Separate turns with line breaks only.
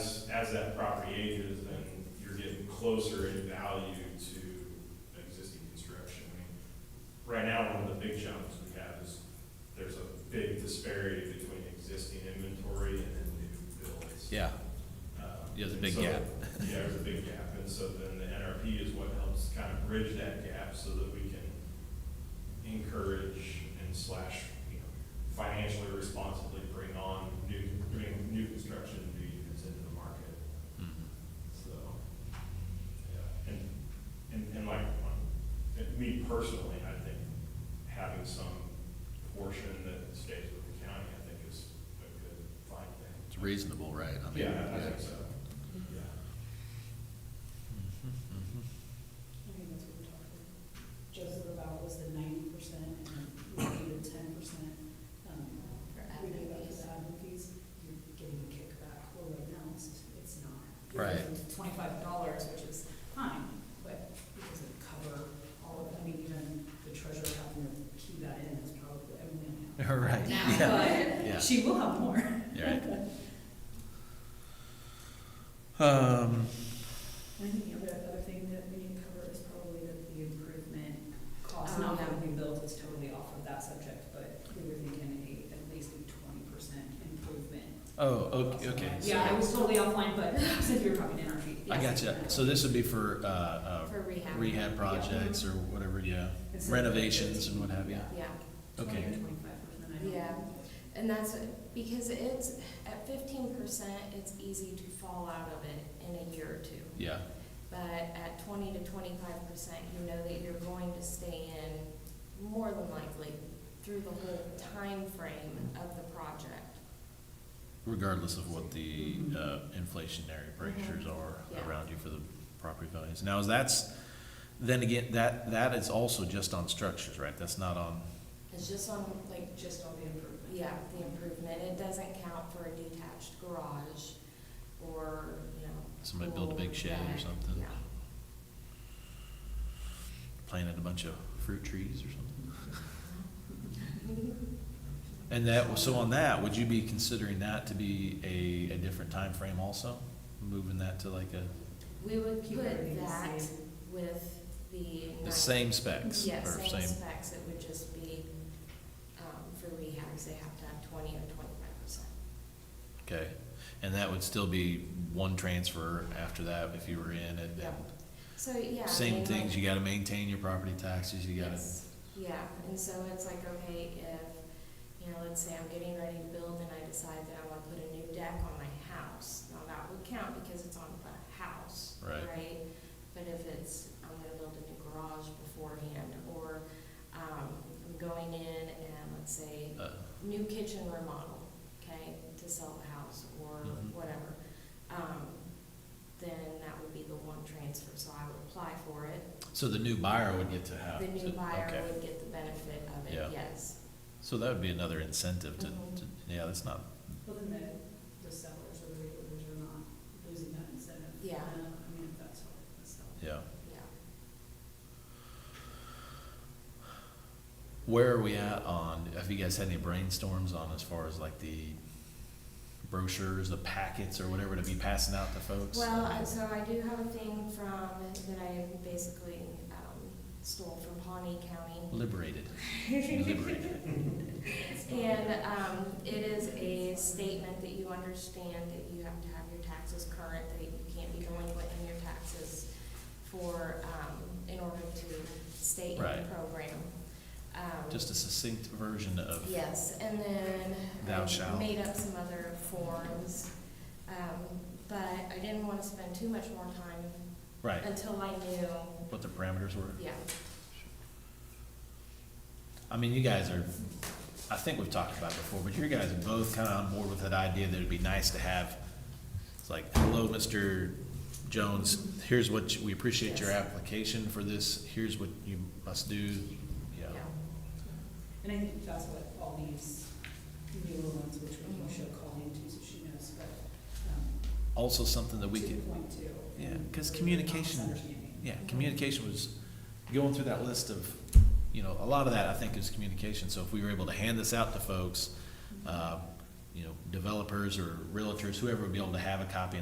as that property ages, then you're getting closer in value to existing construction. I mean, Right now, one of the big challenges we have is there's a big disparity between existing inventory and then new builds.
Yeah,
Um,
Yeah, there's a
and
big
so-
gap.
Yeah, there's a big gap, and so then the NRP is what helps kind of bridge that gap so that we can encourage and slash, you know, financially responsibly bring on new, bring new construction, new units into the market,
Mm-hmm.
so. yeah, And, and, and like, um, me personally, I think having some portion that stays with the county, I think is a good, fine thing.
it's reasonable, right? I mean,
Yeah, I think so. Yeah.
I think that's what we're talking about. Joseph about was the ninety percent and we needed ten percent. um,
For
We
admin
gave up
fees.
the admin fees, you're getting a kickback, well, right now, it's, it's not.
Right.
Twenty-five dollars, which is fine, but it doesn't cover all of, I mean, even the treasurer having to key that in is probably, I mean, we don't
Right,
have
Mm-hmm. yeah,
now,
yeah,
but she will have more.
you're right. Um,
I think the other, other thing that we need to cover is probably that the improvement cost,
Oh,
not
yeah.
that we built is totally off of that subject, but we were thinking a, at least a twenty percent improvement.
oh, okay, okay. so-
Yeah, I was totally offline, but since we were talking energy.
I
yes.
gotcha. So this would be for, uh, uh,
For rehab.
rehab projects or whatever, yeah,
It's a-
renovations and what have you.
Yeah,
Okay.
Twenty or twenty-five percent, I don't know.
Yeah. and that's, because it's, at fifteen percent, it's easy to fall out of it in a year or two.
Yeah,
But at twenty to twenty-five percent, you know that you're going to stay in more than likely through the whole time frame of the project.
regardless of what the, uh, inflationary pressures are
Yeah.
around you for the property values. Now, is that's, then again, that, that is also just on structures, right? That's not on,
It's just on, like,
Just on the improvement.
yeah, the improvement, it doesn't count for a detached garage or, you know.
Somebody build a big
pool,
shed or
deck.
something.
Yeah,
planted a bunch of fruit trees or something. And that, so on that, would you be considering that to be a, a different time frame also? Moving that to like a,
we would
Keep everything
put
the
that
same.
with the.
the
nine-
same specs?
Yeah,
or
same specs, it would just be, um, for rehabs, they have to have twenty or twenty-five percent.
Okay, and that would still be one transfer after that if you were in it?
Yeah. So, yeah. I mean,
Same
like-
things, you gotta maintain your property taxes, you gotta,
Yes. Yeah, and so it's like, okay, if, you know, let's say I'm getting ready to build and I decide that I wanna put a new deck on my house, now that would count because it's on the house,
Right.
right? But if it's, I'm gonna build a new garage beforehand, or, um, I'm going in and let's say,
uh,
new kitchen remodel, okay, to sell the house or
Mhm.
whatever, um, then that would be the one transfer, so I would apply for it,
so the new buyer would get to have.
the new
to-
buyer
okay.
would get the benefit of
Yeah.
it, yes.
So that would be another incentive to,
Mhm.
to, yeah, that's not,
Well, then the, the sellers or the realtors are not losing that incentive.
Yeah.
Uh, I mean, if that's what the seller.
yeah.
Yeah.
Where are we at on, have you guys had any brainstorms on as far as like the brochures, the packets or whatever to be passing out to folks?
Well, and so I do have a thing from, that I basically, um, stole from Pawnee County.
Liberated, liberated,
And, um, it is a statement that you understand that you have to have your taxes current, that you can't be delinquent in your taxes for, um, in order to stay in the
Right.
program. Um,
just a succinct version of,
Yes, and then
Thou
I
shalt.
made up some other forms, um, but I didn't want to spend too much more time
right,
until I knew,
what the parameters were.
yeah,
I mean, you guys are, I think we've talked about it before, but you guys are both kind of on board with that idea that it'd be nice to have, it's like, hello, Mr. Jones, here's what, you- we appreciate your
Yes.
application for this, here's what you must do, yeah.
yeah.
And I think that's what all these newer ones, which we should call into, so she knows, but, um,
Also something that we
to
could,
the point too.
Yeah,
and
'cause
really
communication-
misunderstanding.
Yeah, communication was, going through that list of, you know, a lot of that, I think, is communication. So if we were able to hand this out to folks, uh, you know, developers or realtors, whoever would be able to have a copy